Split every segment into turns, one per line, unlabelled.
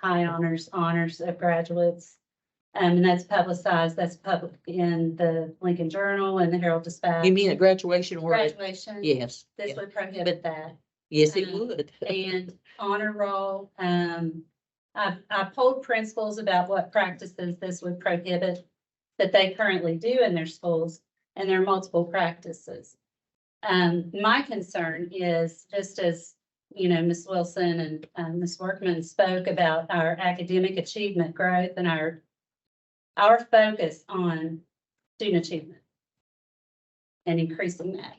high honors, honors of graduates. Um, and that's publicized, that's public in the Lincoln Journal and the Herald Dispatch.
You mean at graduation or, at-
Graduation.
yes,
This
yeah.
would prohibit that.
yes, it
um,
would.
and honor roll. Um, I, I polled principals about what practices this would prohibit that they currently do in their schools, and there are multiple practices. Um, my concern is just as, you know, Ms. Wilson and, um, Ms. Workman spoke about our academic achievement growth and our, our focus on student achievement and increasing that.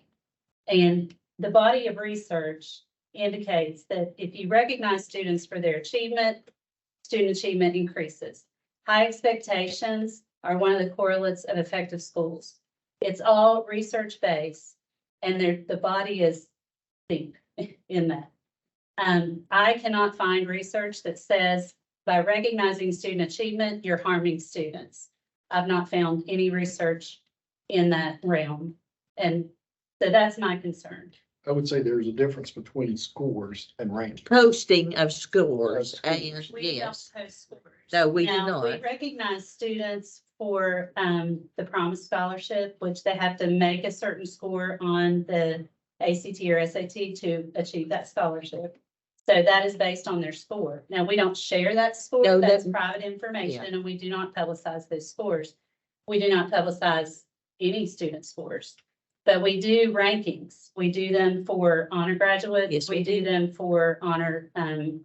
And the body of research indicates that if you recognize students for their achievement, student achievement increases. High expectations are one of the correlates of effective schools. It's all research-based, and there, the body is deep in that. Um, I cannot find research that says by recognizing student achievement, you're harming students. I've not found any research in that realm, and so that's my concern.
I would say there's a difference between scores and ranking.
Posting of scores
Of
and,
scores.
We don't
yes,
post scores.
no, we do
Now, we
not.
recognize students for um the Promise Scholarship, which they have to make a certain score on the ACT or SAT to achieve that scholarship. So that is based on their score. Now, we don't share that
No,
score.
that-
That's private information and we do not publicize those scores. We do not publicize any student scores. But we do rankings. We do them for honor
Yes,
graduates.
we
We do
do.
them for honor um,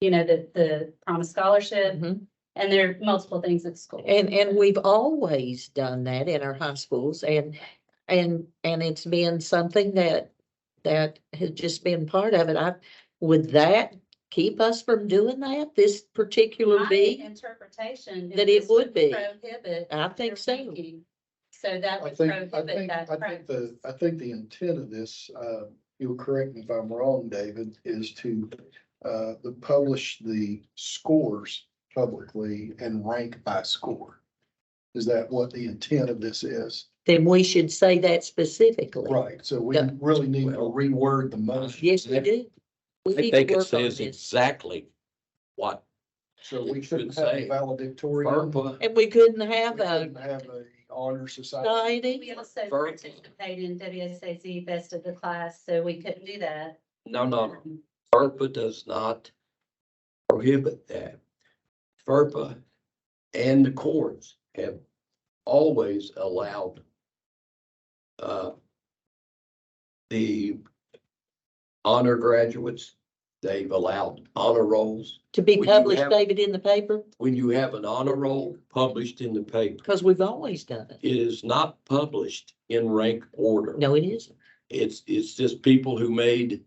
you know, the the Promise Scholarship.
Mhm.
And there are multiple things at school.
And, and we've always done that in our high schools and, and, and it's been something that, that has just been part of it. I, would that keep us from doing that, this particular
My
being?
interpretation. is
that it
this
would be.
Prohibit.
I think
their
so.
ranking. So that
I
would
think, I
prohibit
think,
that.
I think the, I think the intent of this, uh, you'll correct me if I'm wrong, David, is to, uh, to publish the scores publicly and rank by score. Is that what the intent of this is?
Then we should say that specifically.
Right, so we
Yeah.
really need to reword the motion.
Yes, we do. We
I
need to
think they could
work
say
on
is
this.
exactly what,
So we
It
shouldn't
should
have a
say
valedictorian.
FERPA,
And we couldn't
We
have a
shouldn't have a honor society.
We
society.
also
Verbal.
participate in WSAZ best of the class, so we couldn't do that.
no, no, FERPA does not prohibit that. FERPA and the courts have always allowed uh, the honor graduates, they've allowed honor rolls.
To be
Would you
published,
have-
David, in the paper,
When you have an honor roll published in the paper,
because we've always done it.
it is not published in rank order.
No, it isn't.
It's, it's just people who made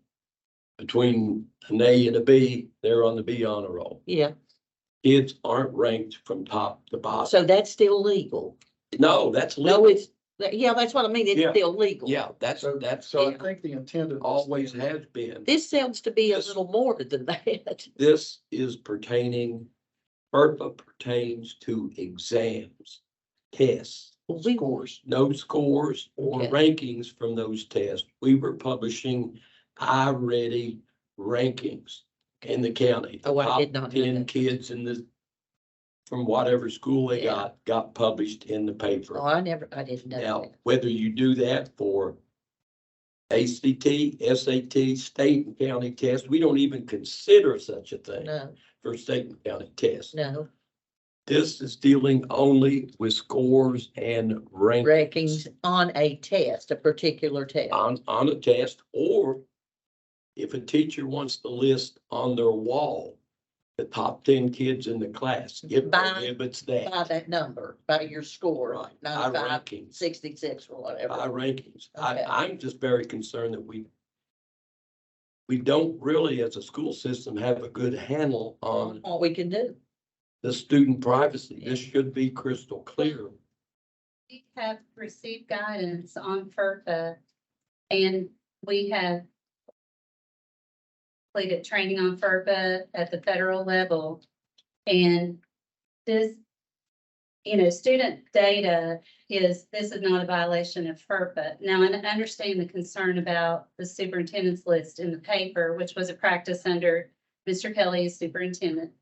between an A and a B, they're on the B honor roll.
Yeah,
Kids aren't ranked from top to bottom.
so that's still legal.
No, that's
No,
legal.
it's, yeah, that's what I mean.
Yeah.
It's still legal.
Yeah, that's,
So,
that's
so I think the intent of. this
always
is-
has been.
This sounds to be a
Yes.
little more than that.
This is pertaining, FERPA pertains to exams, tests.
Well, We,
Scores.
no scores or
Okay.
rankings from those tests. We were publishing iReady rankings in the county. The
Oh, I
top
did not know
Ten
that.
kids in the, from whatever school they
Yeah.
got, got published in the
oh,
paper.
I never, I didn't know
Now,
that.
whether you do that for ACT, SAT, state and county tests, we don't even consider such a thing
No,
for state and county tests.
no,
This is dealing only with scores and rankings.
rankings on a test, a particular test.
on, on a test, or if a teacher wants to list on their wall the top ten kids in the class, it
By-
prohibits
By
that.
that number, by your score,
Right, by
not by
rankings,
sixty-six or
by
whatever.
rankings. I,
Okay.
I'm just very concerned that we we don't really, as a school system, have a good handle on
What we can do.
the student privacy. This
Yeah.
should be crystal clear.
We have received guidance on FERPA and we have completed training on FERPA at the federal level. And this, you know, student data is, this is not a violation of FERPA. Now, and I understand the concern about the superintendent's list in the paper, which was a practice under Mr. Kelly as superintendent.